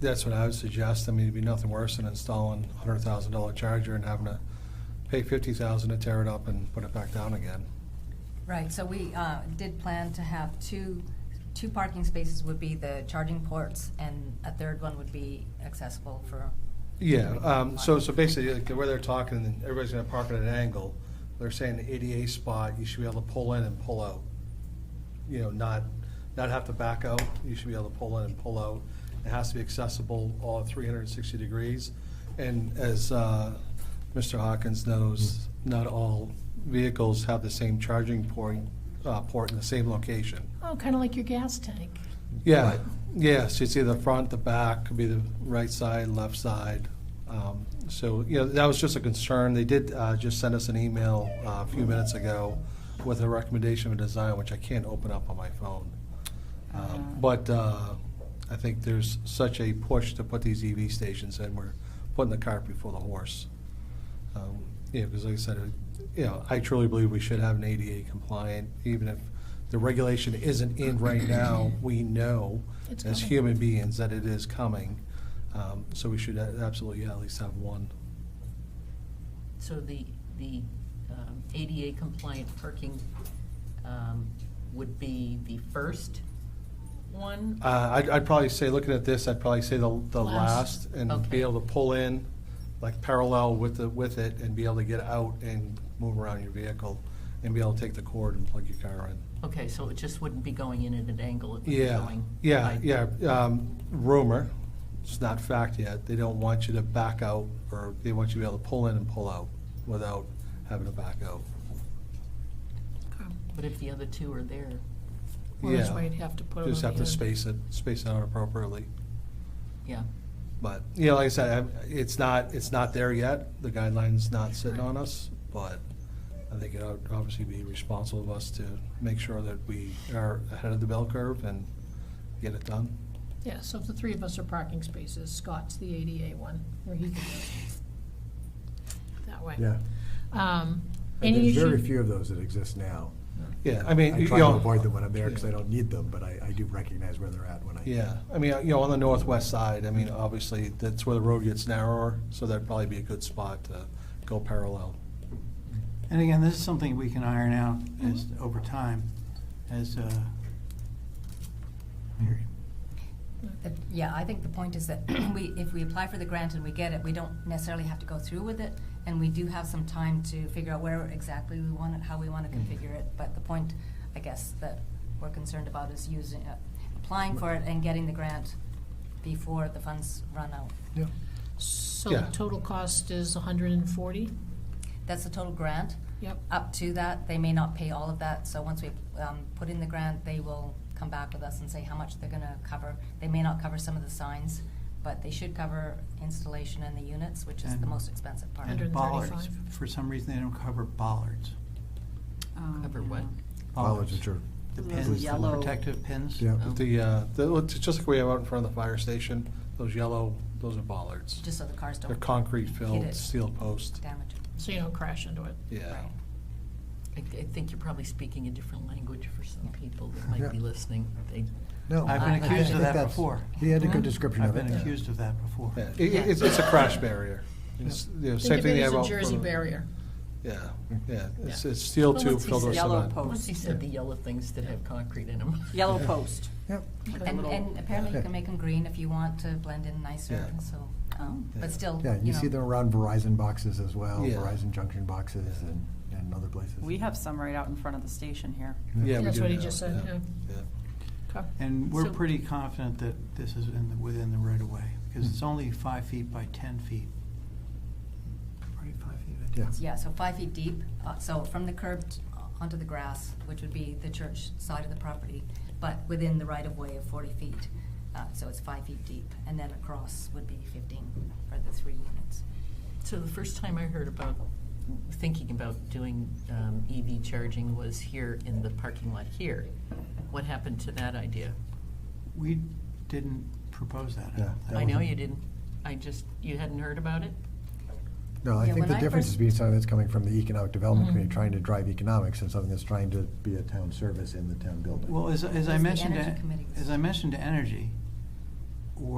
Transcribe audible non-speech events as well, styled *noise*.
That's what I would suggest. I mean, it'd be nothing worse than installing a hundred thousand dollar charger and having to pay fifty thousand to tear it up and put it back down again. Right, so we uh, did plan to have two, two parking spaces would be the charging ports, and a third one would be accessible for, Yeah, um, so, so basically, like, where they're talking, everybody's gonna park at an angle. They're saying the ADA spot, you should be able to pull in and pull out. You know, not, not have to back out. You should be able to pull in and pull out. It has to be accessible all three hundred and sixty degrees. And as, uh, Mr. Hawkins knows, not all vehicles have the same charging point, uh, port in the same location. Oh, kind of like your gas tank. Yeah, yeah, so it's either the front, the back, could be the right side, left side. Um, So, you know, that was just a concern. They did uh, just send us an email uh, a few minutes ago with a recommendation of a design, which I can't open up on my phone. Um, But uh, I think there's such a push to put these EV stations in, we're putting the cart before the horse. Um, Yeah, because like I said, uh, you know, I truly believe we should have an ADA compliant, even if the regulation isn't in right now, we know It's as coming. human beings that it is coming. Um, So we should a- absolutely at least have one. So the, the um, ADA compliant parking um, would be the first one? Uh, I'd, I'd probably say, looking at this, I'd probably say the, the Last. last and be Okay. able to pull in, like parallel with the, with it and be able to get out and move around your vehicle and be able to take the cord and plug your car in. Okay, so it just wouldn't be going in at an angle, it would be Yeah, going. yeah, like- yeah. Um, rumor, it's not fact yet. They don't want you to back out, or they want you to be able to pull in and pull out without having to back out. But if the other two are there, Well, that's Yeah. why you'd have to put it on Just have the to end. space it, space it out appropriately. yeah. But, you know, like I said, I- it's not, it's not there yet. The guideline's not sitting on us, but I think it would obviously be responsible of us to make sure that we are ahead of the bell curve and get it done. Yeah, so if the three of us are parking spaces, Scott's the ADA one, where he can That way. Yeah, Um, and any there's issue? very few of those that exist now. Yeah, I mean, I you try to know- avoid them when I'm there because I don't need them, but I, I do recognize where they're at when I. Yeah, I mean, you know, on the northwest side, I mean, obviously, that's where the road gets narrower, so that'd probably be a good spot to go parallel. And again, this is something we can iron out as, over time, as, uh, Mary. the- yeah, I think the point is that *clears throat* we, if we apply for the grant and we get it, we don't necessarily have to go through with it, and we do have some time to figure out where exactly we want it, how we want to Mm-hmm. configure it, but the point, I guess, that we're concerned about is using, uh, applying for it and getting the grant before the funds run out. Yeah. So the Yeah. total cost is hundred and forty? That's the total grant. Yep. up to that. They may not pay all of that, so once we um, put in the grant, they will come back with us and say how much they're gonna cover. They may not cover some of the signs, but they should cover installation and the units, which is the And- most expensive part. And 135. bollards. For some reason, they don't cover bollards. Oh, Cover yeah. what? Bollards, which are. The Those pins, the yellow- protective pins. Yeah. Oh. The, uh, the, it's just like we have out in front of the fire station, those yellow, those are bollards. Just so the cars don't. They're concrete hit filled, it. steel post, Damage. So you don't crash into it. yeah. Right. I, I think you're probably speaking a different language for some people that might be Yeah. listening. They, No, I've I- been I think accused of that that's- before. He had a good description I've of it. been accused of that before. Yeah, it- it- it's, it's a crash barrier. It's, you know, Think same of thing it they as have a out Jersey front of- barrier. Yeah, Yeah. yeah, it's, it's steel Well, tube once he filled with said yellow cement. post. once you said the yellow things that have concrete in them. Yellow post. Yep. And, and apparently you Yeah. can make them green if you want to blend in nicer, Yeah. so, Oh. Yeah. but still, Yeah, you you see them know. around Verizon boxes as well, Yeah. Verizon Junction boxes and, and other places. We have some right out in front of the station here. Yeah, we That's do what he now, just said, Yeah. Okay. And we're So- pretty confident that this is in, the- within the right of way, because Mm-hmm. it's only five feet by ten feet. Probably five feet by ten. Yeah. Yeah, so five feet deep, uh, so from the curb t- uh, onto the grass, which would be the church side of the property, but within the right-of-way of forty feet, uh, so it's five feet deep, and then across would be fifteen for the three units. So the first time I heard about, thinking about doing um, EV charging was here in the parking lot here. What happened to that idea? We didn't propose that. I Yeah, don't that think. I know wasn't- you didn't, I just, you hadn't heard about it? No, Yeah, I think when the I difference first- is being something that's coming from the Economic Development Mhm. Committee, trying to drive economics, and something that's trying to be a town service in the town building. Well, as, as Because I the mentioned, energy to- committee was- as I mentioned to Energy,